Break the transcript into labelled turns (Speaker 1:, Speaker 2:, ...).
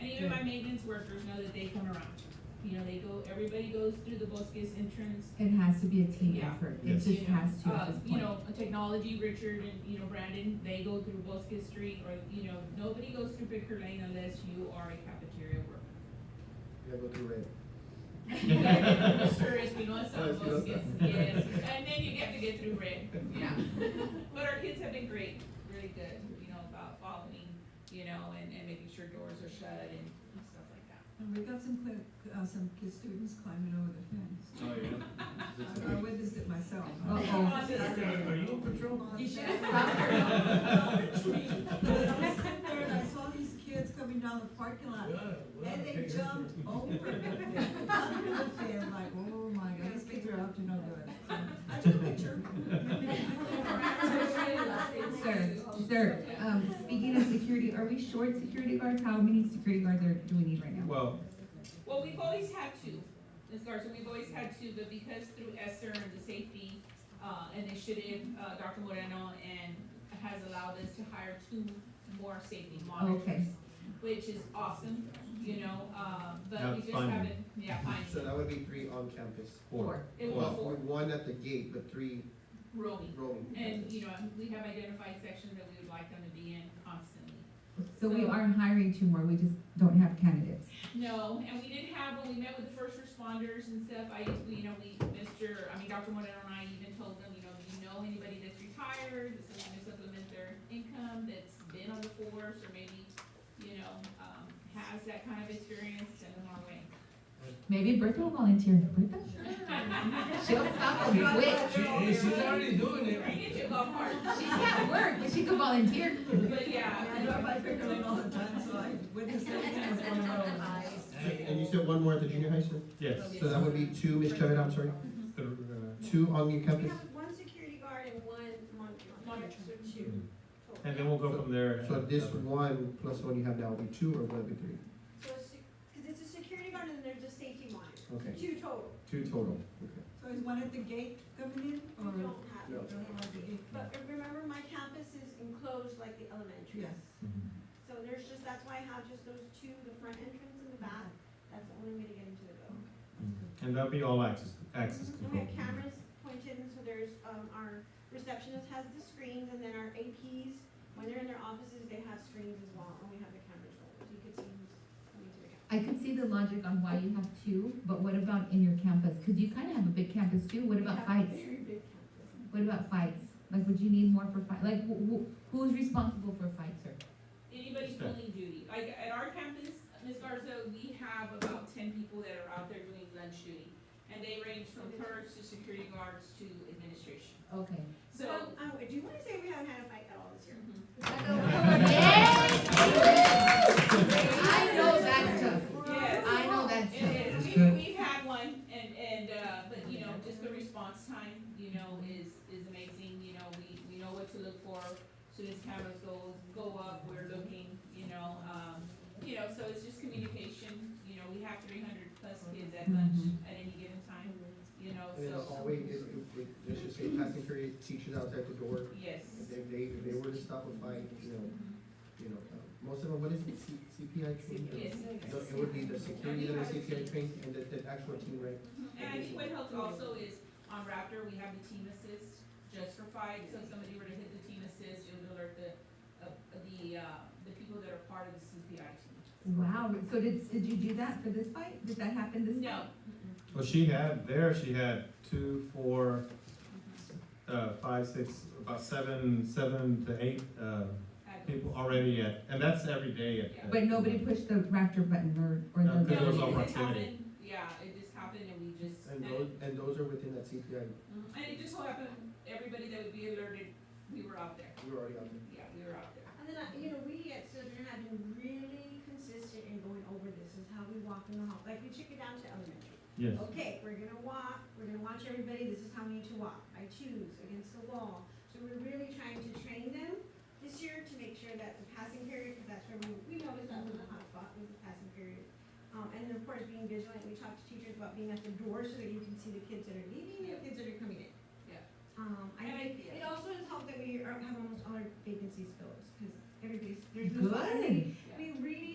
Speaker 1: even my maintenance workers know that they come around. You know, they go, everybody goes through the Bosques entrance,
Speaker 2: It has to be a team
Speaker 1: Yeah.
Speaker 2: effort, it
Speaker 3: Yes.
Speaker 2: just has to
Speaker 1: uh,
Speaker 2: at this
Speaker 1: you
Speaker 2: point.
Speaker 1: know, technology, Richard and, you know, Brandon, they go through Bosques Street or, you know, nobody goes through Bicker Lane unless you are a cafeteria
Speaker 3: Yeah, go through red.
Speaker 1: worker. Sure is, we know
Speaker 3: Oh,
Speaker 1: some
Speaker 3: it's
Speaker 1: Bosques,
Speaker 3: Pinoza.
Speaker 1: yes, and then you get to get through red, yeah. But our kids have been great, really good, you know, about following, you know, and, and making sure doors are shut and stuff like that.
Speaker 4: And we got some clear, uh, some kid students climbing over the fence.
Speaker 5: Oh,
Speaker 4: I- I witnessed it myself.
Speaker 2: Uh-oh.
Speaker 5: Are you on patrol?
Speaker 4: On
Speaker 1: You
Speaker 4: the
Speaker 1: should
Speaker 4: fence.
Speaker 1: have stopped her.
Speaker 4: But I was sitting there and I saw these kids coming down the parking lot, and they jumped over the fence, under the fence, like, oh my god, these kids are up to no good. So, I took a picture.
Speaker 2: Sir, sir, um, speaking of security, are we short security guards? How many security guards are, do we need right now?
Speaker 3: Well,
Speaker 1: Well, we've always had two, Ms. Garza, we've always had two, but because through ESSER and the safety, uh, initiative, uh, Dr. Moreno and has allowed us to hire two more safety monitors,
Speaker 2: Okay.
Speaker 1: which is awesome, you know, uh, but
Speaker 3: That's
Speaker 1: we just
Speaker 3: fine.
Speaker 1: haven't, yeah,
Speaker 3: so
Speaker 1: fine,
Speaker 3: that would be three on campus.
Speaker 2: Four.
Speaker 1: It was
Speaker 3: Well,
Speaker 1: four.
Speaker 3: One at the gate, but three
Speaker 1: roaming.
Speaker 3: roaming.
Speaker 1: And, you know, we have identified sections that we would like them to be in constantly.
Speaker 2: So we are hiring two more, we just don't have candidates.
Speaker 1: No, and we didn't have, when we met with the first responders and stuff, I, we, you know, we, Mr., I mean, Dr. Moreno and I even told them, you know, do you know anybody that's retired, that's looking to supplement their income, that's been on the force, or maybe, you know, um, has that kind of experience, send them our way.
Speaker 2: Maybe Bertha will volunteer, Bertha? She'll stop and be quick.
Speaker 5: She, she's already doing it.
Speaker 1: I get you a golf cart,
Speaker 2: She's at work, but she could volunteer.
Speaker 1: but
Speaker 4: Yeah, I
Speaker 1: yeah,
Speaker 4: drive by Pickering Lane all the time, so I witnessed everything that's going on.
Speaker 3: And you said one more at the junior high school?
Speaker 6: Yes.
Speaker 3: So that would be two, Ms. Chavez, I'm sorry,
Speaker 5: uh,
Speaker 3: two on your
Speaker 6: We
Speaker 3: campus?
Speaker 6: have one security guard and one monitor,
Speaker 1: Monitor.
Speaker 6: so two total.
Speaker 5: And then we'll go from there.
Speaker 3: So this one plus one you have now will be two or will it be three?
Speaker 6: So it's, because it's a security guard and there's a safety monitor,
Speaker 3: Okay,
Speaker 6: two total,
Speaker 3: two total, okay.
Speaker 4: So is one at the gate coming in,
Speaker 6: we
Speaker 4: or?
Speaker 3: No.
Speaker 6: don't have.
Speaker 4: Don't have the gate.
Speaker 6: But remember, my campus is enclosed like the elementary.
Speaker 4: Yes.
Speaker 5: Mm-hmm.
Speaker 6: So there's just, that's why I have just those two, the front entrance and the back, that's the only way to get into the building.
Speaker 5: And that'll be all access, access
Speaker 6: And we
Speaker 5: control.
Speaker 6: have cameras pointed, and so there's, um, our receptionist has the screens, and then our APs, when they're in their offices, they have screens as well, and we have the cameras rolled, so you can see who's coming to the campus.
Speaker 2: I could see the logic on why you have two, but what about in your campus? Cause you kinda have a big campus too, what
Speaker 6: We
Speaker 2: about
Speaker 6: have a
Speaker 2: fights?
Speaker 6: very big campus.
Speaker 2: What about fights? Like, would you need more for fight, like, who, who, who's responsible for fights, sir?
Speaker 1: anybody's pulling duty, like, at our campus, Ms. Garza, we have about ten people that are out there doing gun shooting, and they range from clerks to security guards to administration,
Speaker 2: Okay.
Speaker 1: so.
Speaker 6: Well, um, do you wanna say we haven't had a fight at all this year?
Speaker 2: I know that's tough,
Speaker 1: Yes.
Speaker 2: I know that's tough.
Speaker 1: It is, we, we've had one, and, and, uh, but, you know, just the response time, you know, is, is amazing, you know, we, we know what to look for. Soon as cameras go, go up, we're looking, you know, um, you know, so it's just communication, you know, we have three hundred plus kids at lunch at any given time, you know,
Speaker 3: Mm-hmm. And then
Speaker 1: so,
Speaker 3: always, if, if- if, let's just say passing period, teachers outside the door,
Speaker 1: yes. Mm-hmm.
Speaker 3: if they- they, if they were to stop a fight, you know, you know, uh, most of them, what is it, C- CPI trained?
Speaker 1: Yes.
Speaker 3: No, It would be the security that are CPI trained and the, the actual team, right?
Speaker 1: And I think what helps also is on Raptor, we have the team assist just for fight, so if somebody were to hit the team assist, it would alert the, uh, the, uh, the people that are part of the CPI team.
Speaker 2: Wow, so did, did you do that for this fight? Did that happen this?
Speaker 1: No,
Speaker 5: Well, she had, there she had two, four, uh, five, six, about seven, seven to eight, uh,
Speaker 1: I-
Speaker 5: people already at, and that's every day at. at-
Speaker 2: But nobody pushed the Raptor button or, or
Speaker 5: No,
Speaker 2: the.
Speaker 5: Because it
Speaker 1: no,
Speaker 5: was all
Speaker 1: it just
Speaker 5: proximity.
Speaker 1: happened, yeah, it just happened and we just, and,
Speaker 3: And those, and those are within that CPI,
Speaker 1: Mhm. and it just so happened, everybody that would be alerted, we were out there,
Speaker 3: we're already on there.
Speaker 1: yeah, we were out there.
Speaker 6: And then, I- you know, we at Southern have been really consistent in going over this, is how we walk in the hall, like, we took it down to elementary.
Speaker 5: Yes.
Speaker 6: Okay, we're gonna walk, we're gonna watch everybody, this is how many to walk, I choose, against the wall. So we're really trying to train them this year to make sure that the passing period, because that's where we, we always thought was a hot spot, was the passing period. Um, and then of course, being vigilant, we talk to teachers about being at the door so that you can see the kids that are leaving and the kids that are coming in.
Speaker 1: Yeah.
Speaker 6: Um, I
Speaker 1: And I-
Speaker 6: think, it also has helped that we are, have almost all our vacancies filled, because everybody's, there's no.
Speaker 2: Good.
Speaker 6: We really